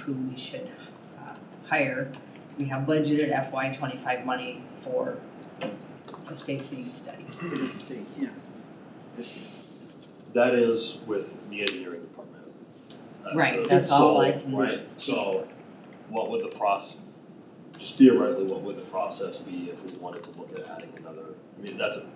who we should uh, hire. We have budgeted FY twenty-five money for a space needs study. yeah. That is with the engineering department. Uh, Right, the- that's all I so, can- Right, so what would the process, just theoretically, what would the process be if we wanted to look at adding another, I mean, that's a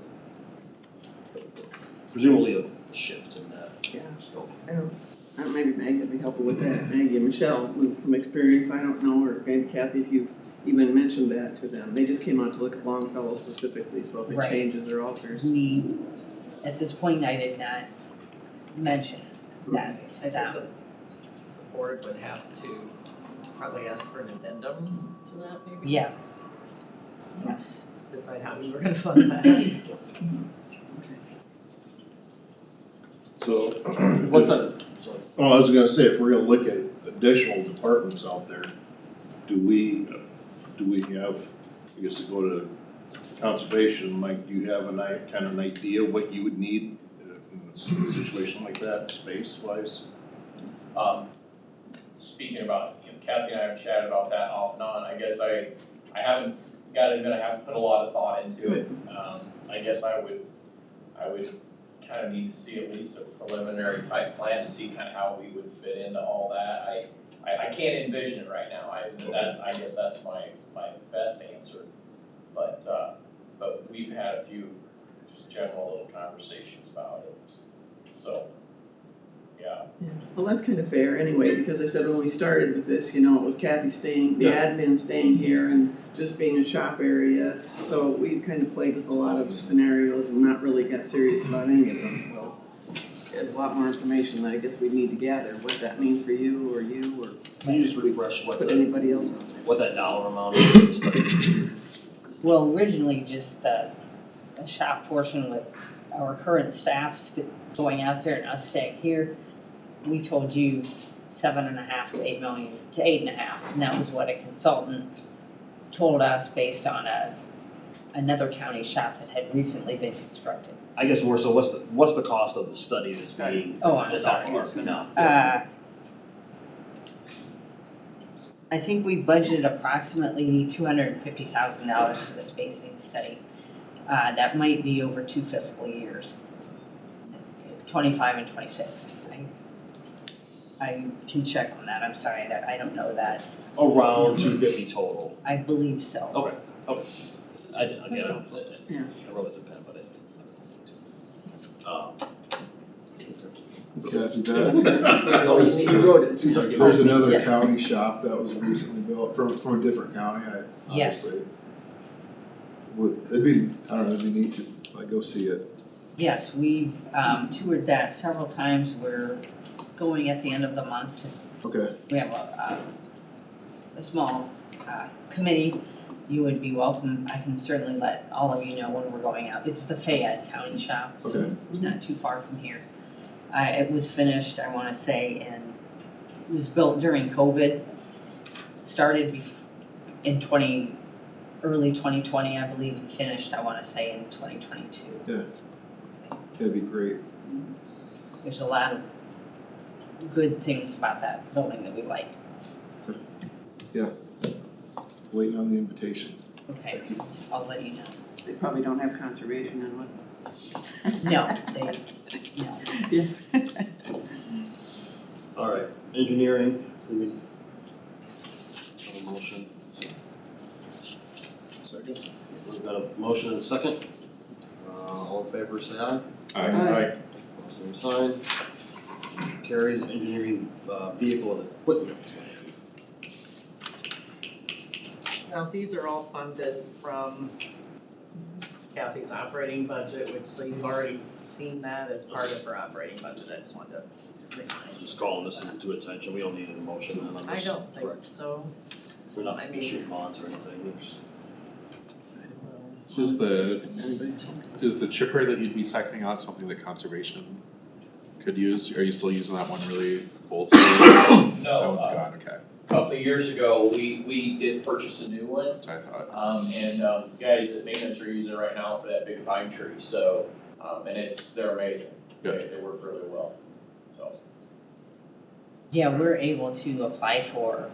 presumably a shift in that Yeah. scope. I don't, I don't- maybe Maggie would be helpful with that, Maggie and Michelle with some experience, I don't know, or maybe Kathy, if you've even mentioned that to them, they just came out to look at Longfellow specifically, so if it Right. changes or alters. We, at this point, I did not mention that to them. The board would have to probably ask for an addendum to that maybe? Yeah. Yes. Decide how we were gonna fund that. So, What's that, sorry, well, Oh, I was gonna say, if we're gonna look at additional departments out there, do we, do we have, I guess to go to conservation, Mike, do you have an i kind of an idea what you would need in a s- situation like that, space wise? Um, speaking about, you know, Kathy and I have chatted about that off and on, I guess I, I haven't got it, but I haven't put a lot of thought into it. Um, I guess I would, I would kind of need to see at least a preliminary type plan to see kind of how we would fit into all that. I, I, I can't envision it right now, I, that's, I guess that's my, my best answer. But, uh, but we've had a few just general little conversations about it, so, yeah. Well, that's kind of fair anyway, because I said when we started with this, you know, it was Kathy staying, the admin staying here and just being a shop area. So we kind of played with a lot of scenarios and not really got serious about any of them, so. There's a lot more information that I guess we need to gather, what that means for you or you or can you just refresh what put the, anybody else on there. what that dollar amount is for the study? Well, originally, just uh, a shop portion with our current staff st- going out there and us staying here, we told you seven and a half to eight million, to eight and a half, and that was what a consultant told us based on a, another county shop that had recently been constructed. I guess more so, what's the, what's the cost of the study that's Study. being, Oh, I'm that's off sorry. our, no, Uh, I think we budgeted approximately two hundred and fifty thousand dollars for the space needs study. Uh, that might be over two fiscal years, twenty-five and twenty-six. I- I can check on that, I'm sorry, that, I don't know that, around two fifty total. I believe so. Okay, okay. I, again, I That's don't, Yeah. I wrote it in pen, but it. Um, Kathy, that, You wrote it. She's like, there's another Yeah. county shop that was recently built from, from a different county, I Yes. obviously. Would, it'd be, I don't know, it'd be neat to, like, go see it. Yes, we've, um, toured that several times, we're going at the end of the month to s- Okay, we have a, a, a small, uh, committee. You would be welcome, I can certainly let all of you know when we're going out, it's the Fayette County shop, so Okay. it's not too far from here. Uh, it was finished, I wanna say, in it was built during COVID, started bef- in twenty, early twenty twenty, I believe, and finished, I wanna say, in twenty twenty-two. Yeah. So that'd be great. there's a lot of good things about that building that we like, Waiting on the invitation. okay, Thank you. I'll let you know. They probably don't have conservation and what. No, they, no. alright, engineering, we need a motion. Second. We've got a motion and a second. Uh, all in favor, say aye. Aye. All Same sign. Carries engineering, uh, vehicle and equipment plan. Now, these are all funded from Kathy's operating budget, which so you've already seen that as part of her operating budget, I just wanted to I'm remind you. Just calling this to attention, we don't need an motion then on I this, don't think correct? so. We're not I mean- issuing bonds or anything, there's. Is the, Anybody's- is the chipper that you'd be sectioning out something that conservation could use? Are you still using that one really old? That No, one's uh, gone, okay, a couple of years ago, we, we did purchase a new one, that's what I thought. um, and, um, guys at maintenance are using it right now for that big pine tree, so, um, and it's, they're amazing. They, Good. they work really well, so. yeah, we're able to apply for